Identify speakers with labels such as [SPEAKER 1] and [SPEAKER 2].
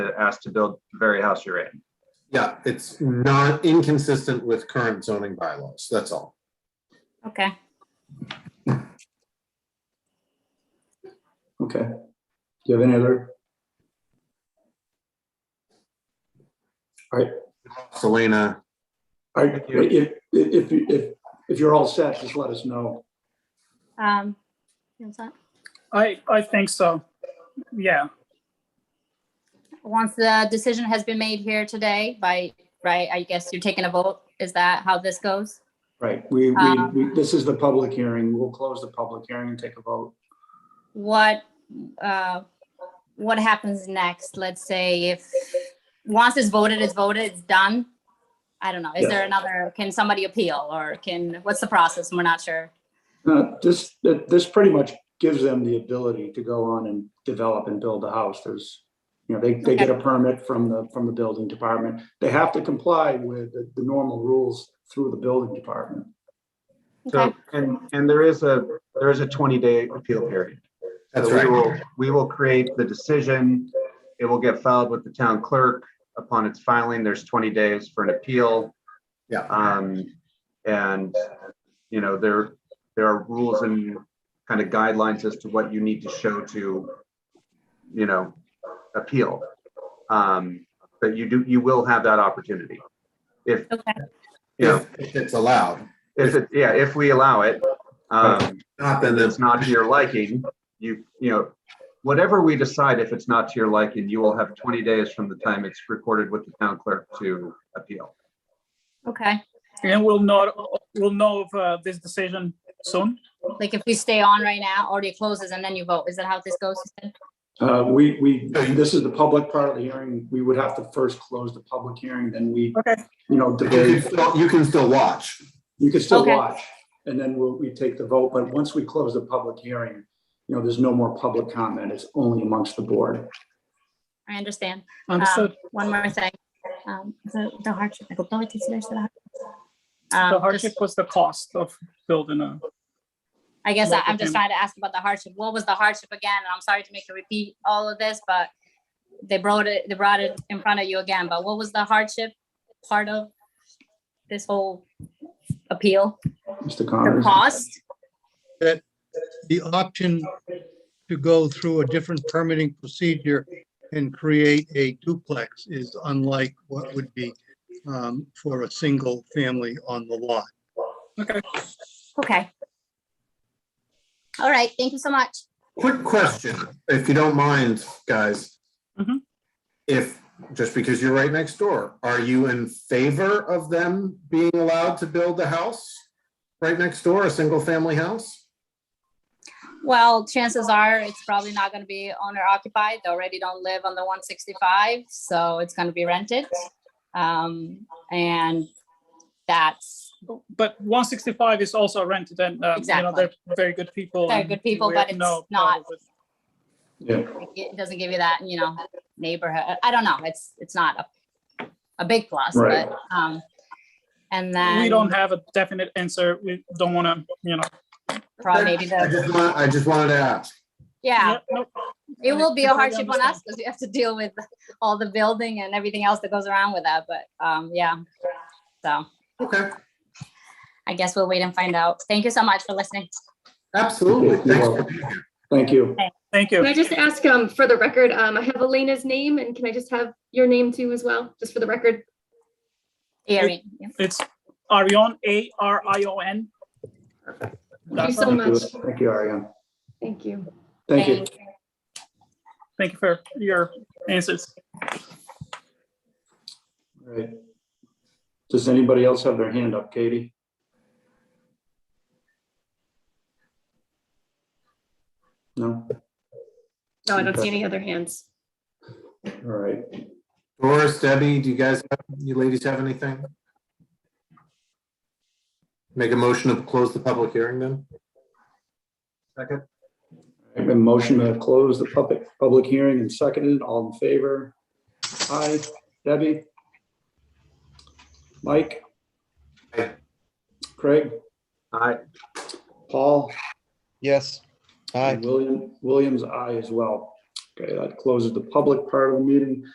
[SPEAKER 1] asked to build the very house you're in.
[SPEAKER 2] Yeah, it's not inconsistent with current zoning bylaws, that's all.
[SPEAKER 3] Okay,
[SPEAKER 4] Okay. Do you have any other?
[SPEAKER 2] Selena,
[SPEAKER 4] All right,
[SPEAKER 1] Thank you.
[SPEAKER 4] if, if, if- if, if you're all set, just let us know.
[SPEAKER 3] um, what's that?
[SPEAKER 5] I, I think so. Yeah,
[SPEAKER 3] once the decision has been made here today by, right, I guess you're taking a vote, is that how this goes?
[SPEAKER 4] Right, we, we,
[SPEAKER 3] Um,
[SPEAKER 4] we- this is the public hearing. We'll close the public hearing and take a vote.
[SPEAKER 3] What, uh, what happens next? Let's say if, once it's voted, it's voted, it's done? I don't know, is there another, can somebody appeal or can, what's the process? We're not sure.
[SPEAKER 4] Uh, this, that- this pretty much gives them the ability to go on and develop and build a house. There's, you know, they, they get a permit from the, from the building department. They have to comply with the, the normal rules through the building department.
[SPEAKER 1] So,
[SPEAKER 3] Okay,
[SPEAKER 1] and, and there is a, there is a 20-day appeal period. So
[SPEAKER 2] That's
[SPEAKER 1] we
[SPEAKER 2] right.
[SPEAKER 1] will, we will create the decision. It will get filed with the town clerk. Upon its filing, there's 20 days for an appeal.
[SPEAKER 2] Yeah.
[SPEAKER 1] Um, and, you know, there, there are rules and kind of guidelines as to what you need to show to, you know, appeal. Um, but you do, you will have that opportunity. If,
[SPEAKER 3] okay,
[SPEAKER 1] you know,
[SPEAKER 2] if if it's allowed,
[SPEAKER 1] if it, yeah, if we allow it, um,
[SPEAKER 2] not then
[SPEAKER 1] and
[SPEAKER 2] it's,
[SPEAKER 1] it's not to your liking, you, you know, whatever we decide, if it's not to your liking, you will have 20 days from the time it's recorded with the town clerk to appeal.
[SPEAKER 3] okay.
[SPEAKER 5] and we'll know, we'll know of uh, this decision soon.
[SPEAKER 3] Like if we stay on right now, already closes and then you vote, is that how this goes?
[SPEAKER 4] Uh, we, we, this is the public part of the hearing. We would have to first close the public hearing, then we,
[SPEAKER 5] Okay.
[SPEAKER 4] you know,
[SPEAKER 2] you can
[SPEAKER 4] debate.
[SPEAKER 2] still- you can still watch.
[SPEAKER 4] You could still
[SPEAKER 3] Okay.
[SPEAKER 4] watch, and then we'll, we take the vote, but once we close the public hearing, you know, there's no more public comment. It's only amongst the board.
[SPEAKER 3] I understand.
[SPEAKER 5] Understood.
[SPEAKER 3] Um, One more thing, um, the the hardship, I don't know what it is, there's the hardship.
[SPEAKER 5] The
[SPEAKER 3] Um,
[SPEAKER 5] hardship
[SPEAKER 3] just-
[SPEAKER 5] was the cost of building a,
[SPEAKER 3] I guess I-
[SPEAKER 5] was
[SPEAKER 3] I'm just
[SPEAKER 5] the-
[SPEAKER 3] trying to ask about the hardship, what was the hardship again, and I'm sorry to make you repeat all of this, but they brought it, they brought it in front of you again, but what was the hardship part of this whole appeal,
[SPEAKER 4] Mr.
[SPEAKER 3] the
[SPEAKER 4] Connors?
[SPEAKER 3] cost?
[SPEAKER 6] the option to go through a different permitting procedure and create a duplex is unlike what would be um, for a single family on the lot.
[SPEAKER 5] okay.
[SPEAKER 3] Okay. All right, thank you so much.
[SPEAKER 2] Quick question, if you don't mind, guys.
[SPEAKER 5] Mhm.
[SPEAKER 2] If, just because you're right next door, are you in favor of them being allowed to build a house? Right next door, a single-family house?
[SPEAKER 3] Well, chances are it's probably not gonna be owner occupied. They already don't live on the one sixty-five, so it's gonna be rented. Um, and that's,
[SPEAKER 5] But 165 is also rented and, uh, you know,
[SPEAKER 3] Exactly.
[SPEAKER 5] they're very good people.
[SPEAKER 3] They're
[SPEAKER 5] and
[SPEAKER 3] good people,
[SPEAKER 5] we
[SPEAKER 3] but
[SPEAKER 5] have
[SPEAKER 3] it's
[SPEAKER 5] no
[SPEAKER 3] not-
[SPEAKER 5] problem with-
[SPEAKER 4] Yeah,
[SPEAKER 3] it doesn't give you that, you know, neighborhood. I don't know. It's, it's not a, a big plus,
[SPEAKER 4] Right.
[SPEAKER 3] but, um, and then.
[SPEAKER 5] We don't have a definite answer. We don't want to, you know.
[SPEAKER 3] Probably maybe
[SPEAKER 2] I
[SPEAKER 3] the,
[SPEAKER 2] just want- I just wanted to ask.
[SPEAKER 3] yeah,
[SPEAKER 5] no-
[SPEAKER 3] it will be a
[SPEAKER 5] completely
[SPEAKER 3] hardship on
[SPEAKER 5] understand.
[SPEAKER 3] us because we have to deal with all the building and everything else that goes around with that, but, um, yeah. So
[SPEAKER 2] Okay,
[SPEAKER 3] I guess we'll wait and find out. Thank you so much for listening.
[SPEAKER 2] absolutely.
[SPEAKER 4] You're
[SPEAKER 2] Thanks for
[SPEAKER 4] welcome.
[SPEAKER 2] being here.
[SPEAKER 4] thank you.
[SPEAKER 5] Thank
[SPEAKER 7] Can I
[SPEAKER 5] you.
[SPEAKER 7] just ask, um, for the record, um, I have Elena's name and can I just have your name too as well, just for the record?
[SPEAKER 3] Erin, yeah.
[SPEAKER 5] It's Arion, A-R-I-O-N.
[SPEAKER 7] Thank you
[SPEAKER 5] That's-
[SPEAKER 7] so much.
[SPEAKER 4] Thank you, Ariane.
[SPEAKER 7] Thank you.
[SPEAKER 4] Thank you.
[SPEAKER 3] Thank
[SPEAKER 5] Thank you for your answers.
[SPEAKER 4] All right. Does anybody else have their hand up, Katie? No?
[SPEAKER 7] No, I don't see any other hands.
[SPEAKER 4] All right.
[SPEAKER 2] Doris, Debbie, do you guys, you ladies have anything? Make a motion to close the public hearing then?
[SPEAKER 1] Second?
[SPEAKER 4] I have a motion to close the public, public hearing and seconded. All in favor? Aye. Debbie? Mike?
[SPEAKER 2] Aye.
[SPEAKER 4] Craig?
[SPEAKER 1] Aye.
[SPEAKER 4] Paul?
[SPEAKER 6] Yes.
[SPEAKER 4] and William, Williams, aye as well. Okay, that closes the public part of the meeting.